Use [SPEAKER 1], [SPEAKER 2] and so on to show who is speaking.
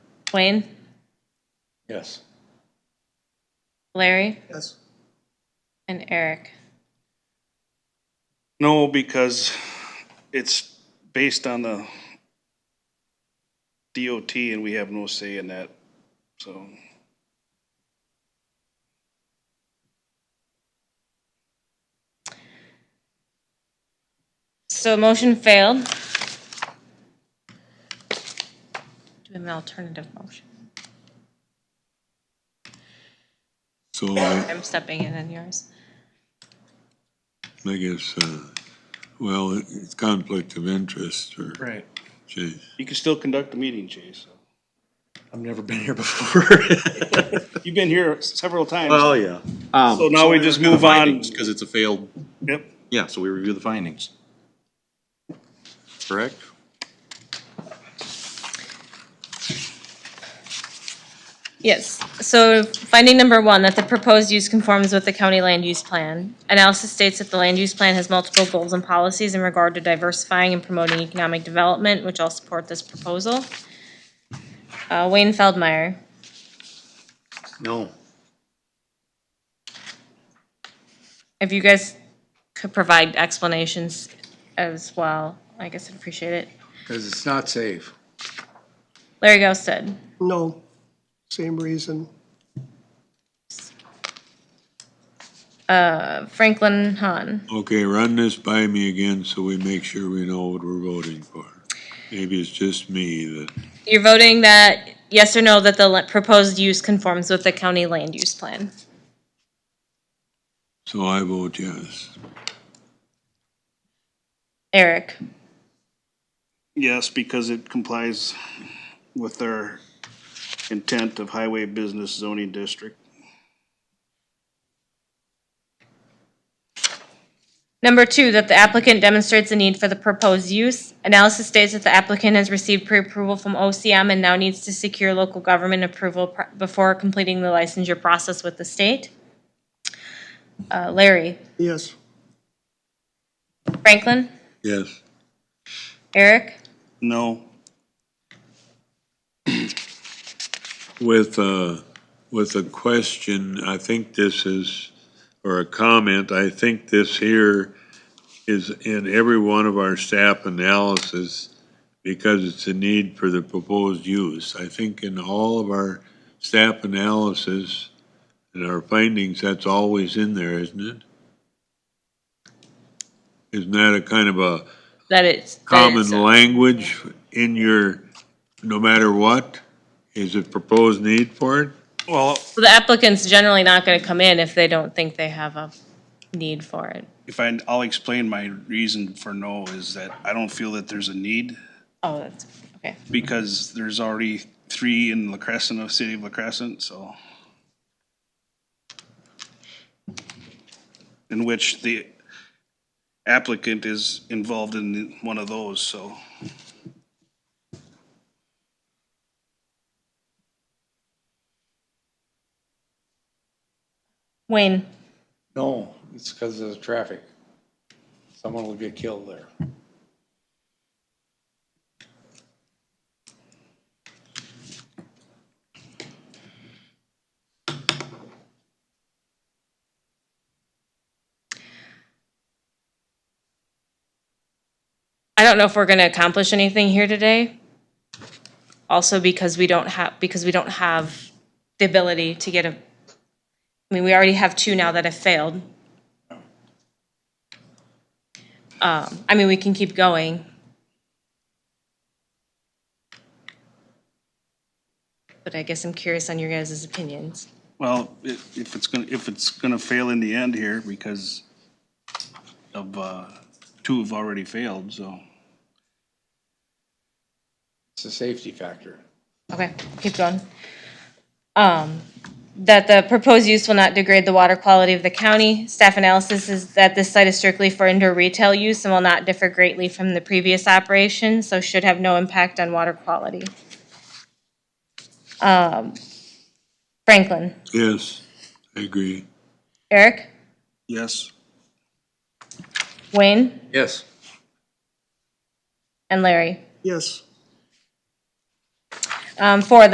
[SPEAKER 1] Wayne,
[SPEAKER 2] Yes.
[SPEAKER 1] Larry,
[SPEAKER 2] Yes.
[SPEAKER 1] and Eric.
[SPEAKER 3] No, because it's based on the DOT and we have no say in that, so.
[SPEAKER 1] So motion failed. Do an alternative motion.
[SPEAKER 4] So I
[SPEAKER 1] I'm stepping in on yours.
[SPEAKER 4] I guess, uh, well, it- it's conflict of interest or,
[SPEAKER 2] Right.
[SPEAKER 4] geez,
[SPEAKER 3] You can still conduct a meeting, Chase.
[SPEAKER 2] I've never been here before.
[SPEAKER 3] You've been here several times,
[SPEAKER 5] Well, Oh, yeah.
[SPEAKER 3] so now we just move on.
[SPEAKER 5] Because it's a failed,
[SPEAKER 3] Yep,
[SPEAKER 5] yeah, so we review the findings. Correct?
[SPEAKER 1] Yes, so finding number one, that the proposed use conforms with the county land use plan. Analysis states that the land use plan has multiple goals and policies in regard to diversifying and promoting economic development, which all support this proposal. Uh, Wayne Feldmeyer,
[SPEAKER 5] No.
[SPEAKER 1] if you guys could provide explanations as well, I guess I'd appreciate it.
[SPEAKER 2] Because it's not safe.
[SPEAKER 1] Larry Ghosted,
[SPEAKER 6] No, same reason.
[SPEAKER 1] Franklin Hahn,
[SPEAKER 4] okay, run this by me again so we make sure we know what we're voting for. Maybe it's just me that,
[SPEAKER 1] you're voting that, yes or no, that the la- proposed use conforms with the county land use plan.
[SPEAKER 4] so I vote yes.
[SPEAKER 1] Eric?
[SPEAKER 3] yes, because it complies with their intent of highway business zoning district.
[SPEAKER 1] Number two, that the applicant demonstrates the need for the proposed use. Analysis states that the applicant has received pre-approval from OCM and now needs to secure local government approval pr- before completing the licensure process with the state. Uh, Larry,
[SPEAKER 6] Yes,
[SPEAKER 1] Franklin,
[SPEAKER 4] Yes,
[SPEAKER 1] Eric,
[SPEAKER 3] No,
[SPEAKER 4] with, uh, with a question, I think this is, or a comment, I think this here is in every one of our staff analysis because it's a need for the proposed use. I think in all of our staff analysis and our findings, that's always in there, isn't it? Isn't that a kind of a
[SPEAKER 1] that it's. that
[SPEAKER 4] common
[SPEAKER 1] it's-
[SPEAKER 4] language in your, no matter what? Is it proposed need for it?
[SPEAKER 3] well,
[SPEAKER 1] So the applicant's generally not gonna come in if they don't think they have a need for it.
[SPEAKER 3] if I, I'll explain my reason for no is that I don't feel that there's a need.
[SPEAKER 1] Oh, that's, okay.
[SPEAKER 3] because there's already three in La Crescent, of city of La Crescent, so. In which the applicant is involved in one of those, so.
[SPEAKER 1] Wayne,
[SPEAKER 2] No, it's because of the traffic. Someone will get killed there.
[SPEAKER 1] I don't know if we're gonna accomplish anything here today. Also because we don't have, because we don't have the ability to get a, I mean, we already have two now that have failed. Um, I mean, we can keep going. But I guess I'm curious on your guys' opinions.
[SPEAKER 3] Well, i- if it's gonna, if it's gonna fail in the end here because of, uh, two have already failed, so.
[SPEAKER 2] It's a safety factor.
[SPEAKER 1] Okay, keep going. Um, that the proposed use will not degrade the water quality of the county. Staff analysis is that this site is strictly for indoor retail use and will not differ greatly from the previous operation, so should have no impact on water quality. Um, Franklin,
[SPEAKER 4] Yes, I agree.
[SPEAKER 1] Eric,
[SPEAKER 3] Yes.
[SPEAKER 1] Wayne,
[SPEAKER 2] Yes.
[SPEAKER 1] and Larry.
[SPEAKER 6] yes.
[SPEAKER 1] Um, four,